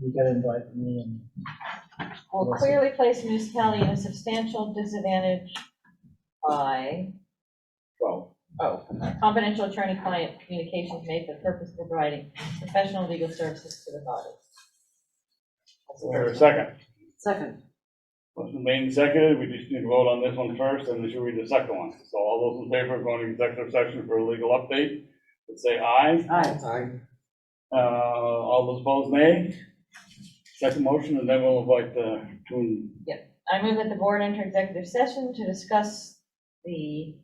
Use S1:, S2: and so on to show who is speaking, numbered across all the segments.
S1: you gotta invite me and.
S2: will clearly place municipality in a substantial disadvantage by
S1: Well,
S2: Oh, confidential attorney-client communications made for the purpose of providing professional legal services to the body. That's
S3: Or a
S2: the first one.
S3: second.
S4: Second,
S3: Motion made and seconded, we just need to vote on this one first, and then should read the second one. So all those in favor of going to executive session for a legal update, would say aye.
S4: aye.
S3: Uh, all those opposed, nay. Second motion, and then we'll invite uh, the two,
S2: I move that the board enter executive session to discuss the,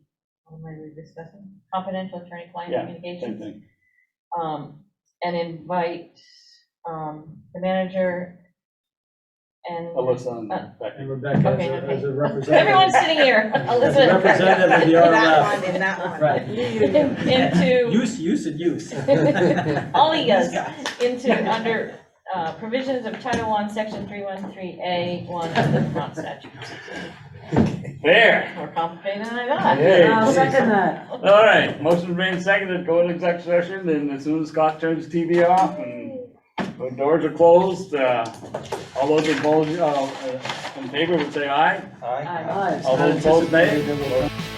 S2: what am I really discussing? Confidential attorney-client
S3: Yeah, same
S2: communications.
S3: thing.
S2: Um, and invite, um, the manager and
S3: Alyssa and Becky.
S1: And Rebecca as
S2: Okay,
S1: a,
S2: okay.
S1: as a representative.
S2: everyone sitting here,
S1: As a representative
S2: Alyssa.
S1: of the
S5: That
S1: RLF.
S5: one, and that one.
S1: Right.
S2: Into.
S1: Use, use and use.
S2: all he does into, under uh, provisions of Title I, Section 313A, 1 of the Vermont statute.
S3: There,
S2: More complicated than I thought.
S3: Hey.
S4: I'll
S2: Um,
S4: second that.
S3: all right, motion made and seconded, go to executive session, and as soon as Scott turns TV off and the doors are closed, uh, all those opposed, uh, in favor would say aye.
S2: I'm-
S4: Aye.
S3: All those opposed, nay.